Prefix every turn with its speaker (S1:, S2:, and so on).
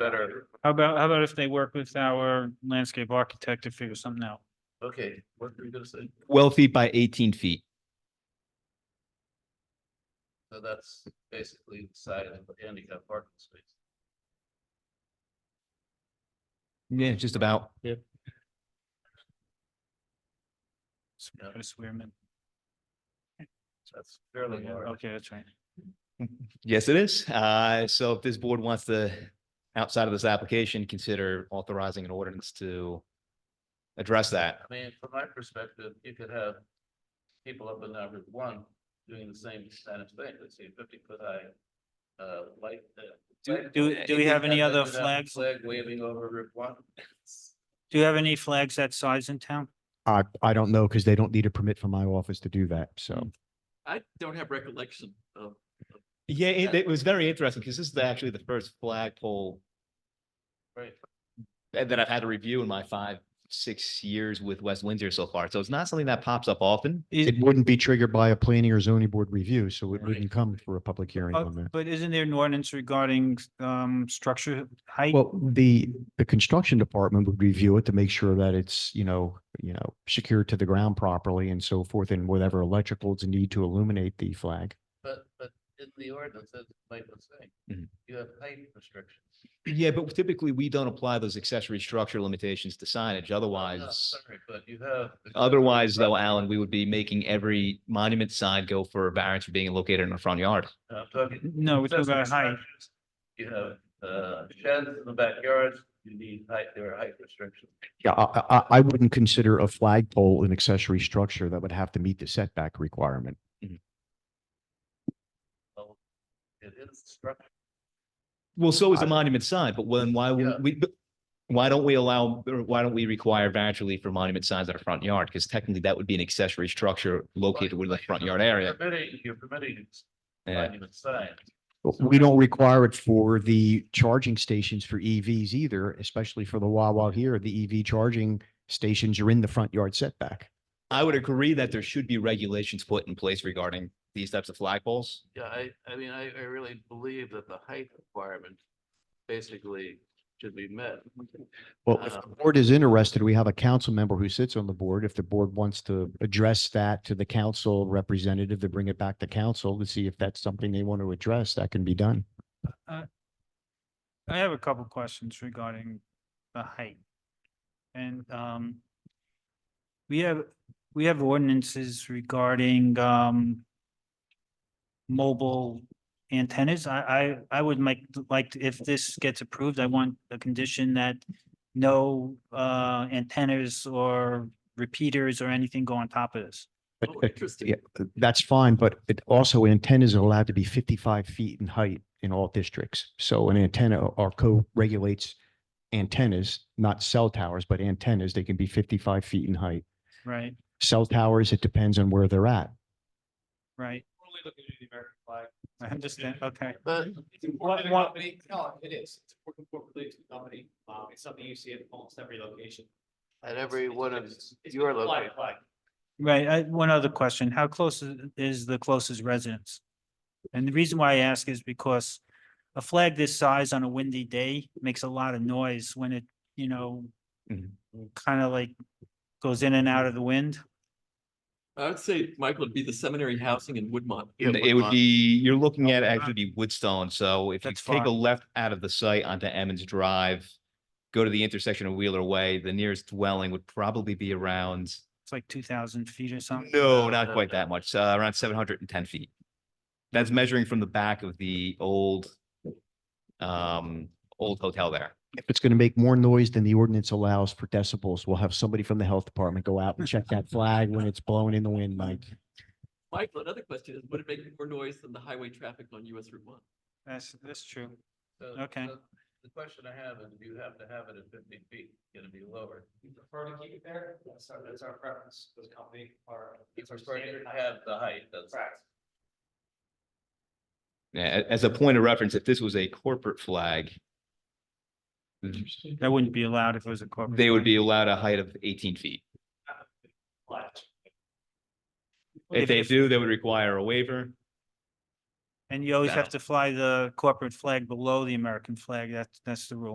S1: better.
S2: How about, how about if they work with our landscape architect to figure something out?
S1: Okay, what were you gonna say?
S3: twelve feet by eighteen feet.
S1: So that's basically the side of the handicap parking space.
S3: Yeah, just about.
S1: Yeah.
S2: Chris Weirman.
S1: That's fairly large.
S2: Okay, that's right.
S3: Yes, it is. Uh, so if this board wants to, outside of this application, consider authorizing an ordinance to address that.
S1: I mean, from my perspective, you could have people up in that Route One doing the same kind of thing, let's say fifty foot high. Uh, light. uh,
S2: Do-
S1: flag
S2: do-
S1: pole.
S2: do we have any
S1: Have that-
S2: other
S1: that
S2: flags?
S1: Flag waving over Route One.
S2: Do you have any flags that size in town?
S4: I, I don't know because they don't need a permit from my office to do that. So
S2: Mm.
S1: I don't have recollection of.
S3: Yeah, it, it was very interesting because this is actually the first flagpole
S1: Right,
S3: that that I've had to review in my five, six years with West Windsor so far. So it's not something that pops up often.
S4: it
S2: Is-
S4: wouldn't be triggered by a planning or zoning board review, so it
S1: Right.
S4: wouldn't come for a public hearing
S2: uh,
S4: on that.
S2: But isn't there an ordinance regarding um structure height?
S4: Well, the, the construction department would review it to make sure that it's, you know, you know, secured to the ground properly and so forth and whatever electricals need to illuminate the flag.
S1: but, but in the ordinance, as Mike was saying,
S3: Mhm.
S1: you have height restrictions.
S3: Yeah, but typically we don't apply those accessory structure limitations to signage.
S1: I'm not
S3: Otherwise,
S1: Sorry, but you have.
S3: otherwise though, Alan, we would be making every monument sign go for a variance for being located in a front yard.
S1: I'm talking
S2: No, we're talking about height.
S1: You have uh, sheds in the backyards, you need height, there are height restrictions.
S4: Yeah, I, I, I- I wouldn't consider a flagpole an accessory structure that would have to meet the setback requirement.
S1: It is structure.
S3: Well, so is
S4: I-
S3: a monument sign, but when, why,
S1: Yeah.
S3: would we, but why don't we allow, or why don't we require variance relief for monument signs in our front yard? Because technically that would be an accessory structure located within the front yard area.
S1: Permitting, you're permitting
S3: Yeah.
S1: monument signs.
S4: But We don't require it for the charging stations for EVs either, especially for the Wawa here. The EV charging stations are in the front yard setback.
S3: I would agree that there should be regulations put in place regarding these types of flagpoles.
S1: Yeah, I, I mean, I, I really believe that the height requirement basically should be met.
S4: Well, if the board is interested, we have a council member who sits on the board. If the board wants to address that to the council representative, to bring it back to council to see if that's something they want to address, that can be done.
S2: I have a couple questions regarding the height. And um. We have, we have ordinances regarding um. Mobile antennas. I I I would make, like, if this gets approved, I want a condition that. No uh antennas or repeaters or anything go on top of this.
S4: But,
S1: Oh,
S4: uh,
S1: interesting.
S4: yeah, uh, That's fine, but it also antennas are allowed to be fifty-five feet in height in all districts. So an antenna or co-regulates antennas, not cell towers, but antennas, they can be fifty-five feet in height.
S2: Right,
S4: Cell towers, it depends on where they're at.
S2: right.
S5: We're only looking at the American flag.
S2: I understand. Okay.
S1: But
S5: It's important to the
S2: what-
S5: company, no, it is, it's important for the company, um, it's something you see at almost every location.
S1: at every one of
S5: It's- it's
S1: your
S5: a flag
S1: locations.
S5: flag.
S2: Right, I, one other question, how close is- is the closest residence? And the reason why I ask is because a flag this size on a windy day makes a lot of noise when it, you know,
S3: Mhm.
S2: kind of like goes in and out of the wind.
S6: I would say, Michael, it'd be the seminary housing in Woodmont.
S3: It would be, you're looking at actually be Woodstone, so if you
S2: That's
S3: take a
S2: fine.
S3: left out of the site onto Emmons Drive, go to the intersection of Wheeler Way, the nearest dwelling would probably be around,
S2: It's like two thousand feet or something.
S3: no,
S1: no,
S3: not quite
S1: no.
S3: that much, uh, around seven hundred and ten feet. That's measuring from the back of the old, um, old hotel there.
S4: If it's going to make more noise than the ordinance allows for decibels, we'll have somebody from the health department go out and check that flag when it's blowing in the wind, Mike.
S6: Michael, another question is, would it make more noise than the highway traffic on US Route one?
S2: That's, that's true.
S1: So-
S2: Okay.
S1: so The question I have is, you have to have it at fifty feet, gonna be lower.
S5: We prefer to keep it there, that's our, that's our preference, this company, our,
S1: It's
S5: it's our
S1: preferred
S5: standard.
S1: to have the height, that's.
S5: Correct.
S3: Yeah, a- as a point of reference, if this was a corporate flag,
S2: That wouldn't be allowed if it was a corporate.
S3: they would
S2: flag.
S3: be allowed a height of eighteen feet.
S5: Uh, Flat.
S3: If they do, they would require a waiver.
S2: And you always
S3: No.
S2: have to fly the corporate flag below the American flag. That's, that's the rule.